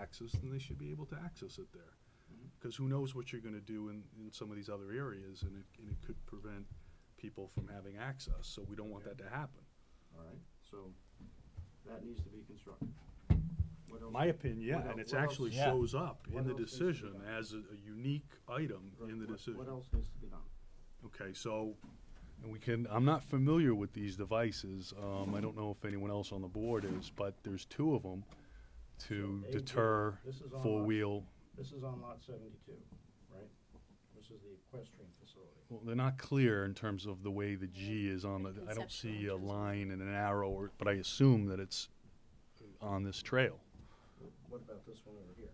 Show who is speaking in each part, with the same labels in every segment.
Speaker 1: access, then they should be able to access it there.
Speaker 2: Mm-hmm.
Speaker 1: Because who knows what you're gonna do in, in some of these other areas, and it, and it could prevent people from having access, so we don't want that to happen.
Speaker 2: All right, so that needs to be constructed. What else-
Speaker 1: My opinion,
Speaker 2: what
Speaker 1: yeah, and
Speaker 2: el-
Speaker 1: it
Speaker 2: what else-
Speaker 1: actually
Speaker 3: Yeah.
Speaker 1: shows up
Speaker 2: What
Speaker 1: in the
Speaker 2: else needs to be
Speaker 1: decision
Speaker 2: done?
Speaker 1: as a, a unique item in the
Speaker 2: What- What
Speaker 1: decision.
Speaker 2: else needs to be done?
Speaker 1: Okay, so, and we can, I'm not familiar with these devices, um, I don't know if anyone else on the board is, but there's two of them to
Speaker 2: So, AJ,
Speaker 1: deter
Speaker 2: this is on
Speaker 1: four-wheel,
Speaker 2: This is on lot seventy-two, right? This is the equestrian facility.
Speaker 1: well, they're not clear in terms of the way the G is on the, I don't see a
Speaker 4: Conceptual.
Speaker 1: line and an arrow, or- but I assume that it's on this trail.
Speaker 2: What about this one over here?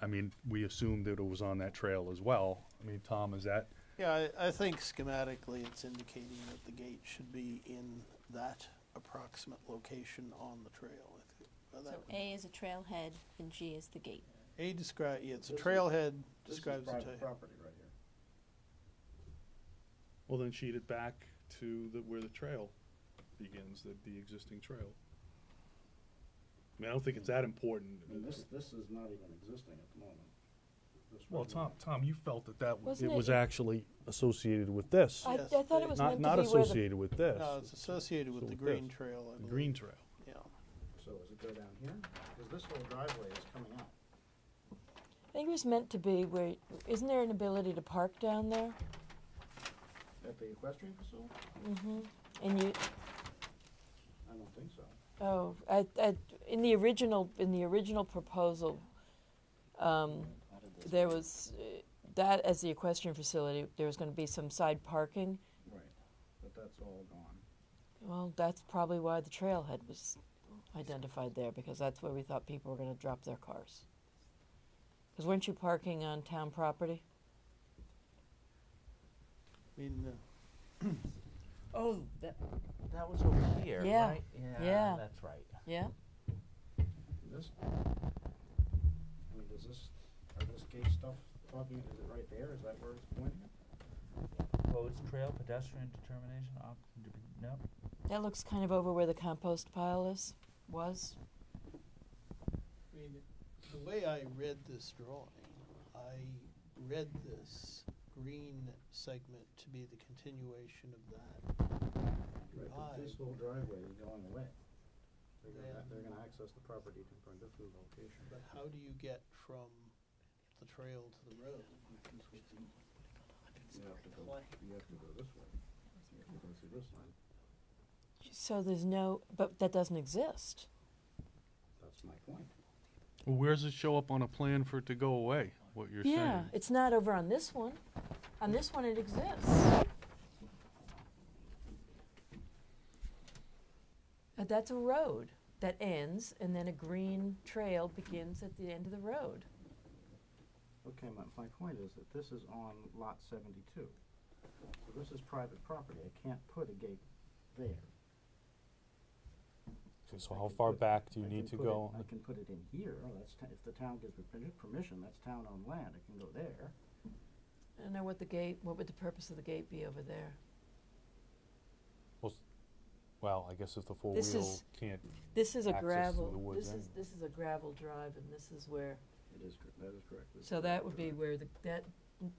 Speaker 1: I mean, we assumed that it was on that trail as well. I mean, Tom, is that,
Speaker 5: Yeah, I, I think schematically it's indicating that the gate should be in that approximate location on the trail. I think. Well,
Speaker 4: So
Speaker 5: that-
Speaker 4: A is a trailhead and G is the gate.
Speaker 5: A describe, yeah, it's a
Speaker 2: This is-
Speaker 5: trailhead
Speaker 2: This is
Speaker 5: describes the
Speaker 2: private
Speaker 5: trail.
Speaker 2: property right here.
Speaker 1: well, then sheet it back to the, where the trail begins, the, the existing trail. I mean, I don't think it's that important.
Speaker 2: I mean, this, this is not even existing at the moment. This
Speaker 1: Well,
Speaker 2: right
Speaker 1: Tom,
Speaker 2: here.
Speaker 1: Tom, you felt that that, was it
Speaker 6: Wasn't
Speaker 1: was
Speaker 6: it-
Speaker 1: actually associated with this,
Speaker 6: I, I
Speaker 5: Yes,
Speaker 6: thought
Speaker 5: they-
Speaker 6: it was
Speaker 1: not,
Speaker 6: meant
Speaker 1: not
Speaker 6: to be where the
Speaker 1: associated with this.
Speaker 5: No, it's associated
Speaker 1: So
Speaker 5: with the
Speaker 1: with
Speaker 5: green
Speaker 1: this.
Speaker 5: trail, I
Speaker 1: The
Speaker 5: believe.
Speaker 1: green trail.
Speaker 5: Yeah.
Speaker 2: So does it go down here? Because this whole driveway is coming out.
Speaker 6: I think it was meant to be where isn't there an ability to park down there?
Speaker 2: At the equestrian facility?
Speaker 6: hmm And you
Speaker 2: I don't think so.
Speaker 6: oh I, I in the original in the original proposal um, there was uh, that as the equestrian facility there was going to be some side parking.
Speaker 2: Right, but that's all gone.
Speaker 6: Well, that's probably why the trailhead was identified there because that's where we thought people were going to drop their cars. Because weren't you parking on town property?
Speaker 5: I mean, uh,
Speaker 7: Oh, that, that was over here,
Speaker 6: Yeah.
Speaker 7: right?
Speaker 6: Yeah.
Speaker 7: That's right.
Speaker 6: Yeah.
Speaker 2: This, I mean, is this, are this gate stuff talking, is it right there? Is that where it's pointing?
Speaker 7: Roads, trail, pedestrian determination, op- d- no?
Speaker 6: That looks kind of over where the compost pile is was.
Speaker 5: I mean, the way I read this drawing, I read this green segment to be the continuation of that.
Speaker 2: Right, but this
Speaker 5: Right.
Speaker 2: whole driveway is going away. They're gonna,
Speaker 5: Yeah.
Speaker 2: they're gonna access the property to- from a different location.
Speaker 5: But how do you get from the trail to the road?
Speaker 2: You have to go, you have to go this way. You can see this line,
Speaker 6: So there's no, but that doesn't exist.
Speaker 2: that's my point.
Speaker 1: Well, where does it show up on a plan for it to go away, what you're
Speaker 6: yeah,
Speaker 1: saying?
Speaker 6: it's not over on this one. On this one, it exists. Uh, that's a road that ends, and then a green trail begins at the end of the road.
Speaker 2: Okay, my, my point is that this is on lot seventy-two. So this is private property, I can't put a gate there.
Speaker 3: So
Speaker 2: I
Speaker 3: how
Speaker 2: can
Speaker 3: far
Speaker 2: put-
Speaker 3: back do you
Speaker 2: I
Speaker 3: need to
Speaker 2: can put it-
Speaker 3: go?
Speaker 2: I can put it in here, that's, t- if the town gives me permi- permission, that's town-owned land, it can go there.
Speaker 6: I don't know what the gate. What would the purpose of the gate be over there?
Speaker 3: Well, I guess if the four
Speaker 6: This
Speaker 3: wheel
Speaker 6: is-
Speaker 3: can't,
Speaker 6: This is a
Speaker 3: Access to the
Speaker 6: gravel.
Speaker 3: woods eh?
Speaker 6: This is
Speaker 3: end.
Speaker 6: this is a gravel drive, and this is where.
Speaker 2: It is, cor- that is correct. This
Speaker 6: So
Speaker 2: is
Speaker 6: that
Speaker 2: right
Speaker 6: would
Speaker 2: there.
Speaker 6: be where the, that,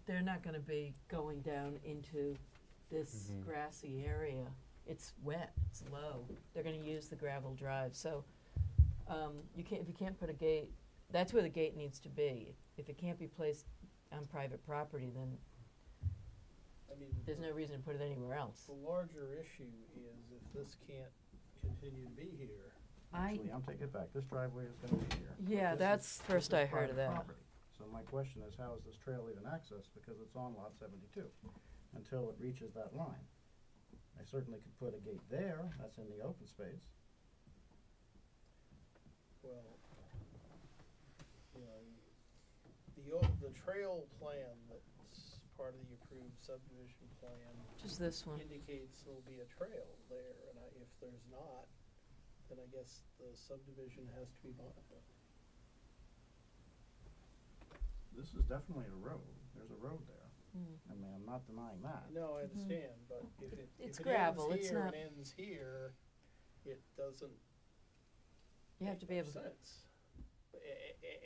Speaker 6: they're not gonna be going down into this
Speaker 3: Mhm.
Speaker 6: grassy area. It's wet, it's low, they're gonna use the gravel drive, so, um, you can't, if you can't put a gate, that's where the gate needs to be. If it can't be placed on private property, then
Speaker 5: I mean,
Speaker 6: there's no reason to put it anywhere else.
Speaker 5: The larger issue is if this can't continue to be here,
Speaker 6: I,
Speaker 2: Actually, I'm taking it back, this driveway is gonna be here. This
Speaker 6: yeah,
Speaker 2: is-
Speaker 6: that's,
Speaker 2: this
Speaker 6: first
Speaker 2: is
Speaker 6: I heard
Speaker 2: private
Speaker 6: of that.
Speaker 2: property. So my question is, how is this trail even accessed, because it's on lot seventy-two, until it reaches that line? I certainly could put a gate there, that's in the open space.
Speaker 5: well, you know, the, o- the trail plan that's part of the approved subdivision plan
Speaker 6: Just this one,
Speaker 5: indicates there'll be a trail there, and I, if there's not, then I guess the subdivision has to be modified.
Speaker 2: This is definitely a road, there's a road there,
Speaker 6: Mm.
Speaker 2: I mean, I'm not denying that.
Speaker 5: No, I understand, but if it,
Speaker 6: Mm-hmm. It's
Speaker 5: if it
Speaker 6: gravel,
Speaker 5: ends
Speaker 6: it's
Speaker 5: here
Speaker 6: not-
Speaker 5: and ends here, it doesn't
Speaker 6: you have to be
Speaker 5: make
Speaker 6: able to.
Speaker 5: much sense. A- a- a-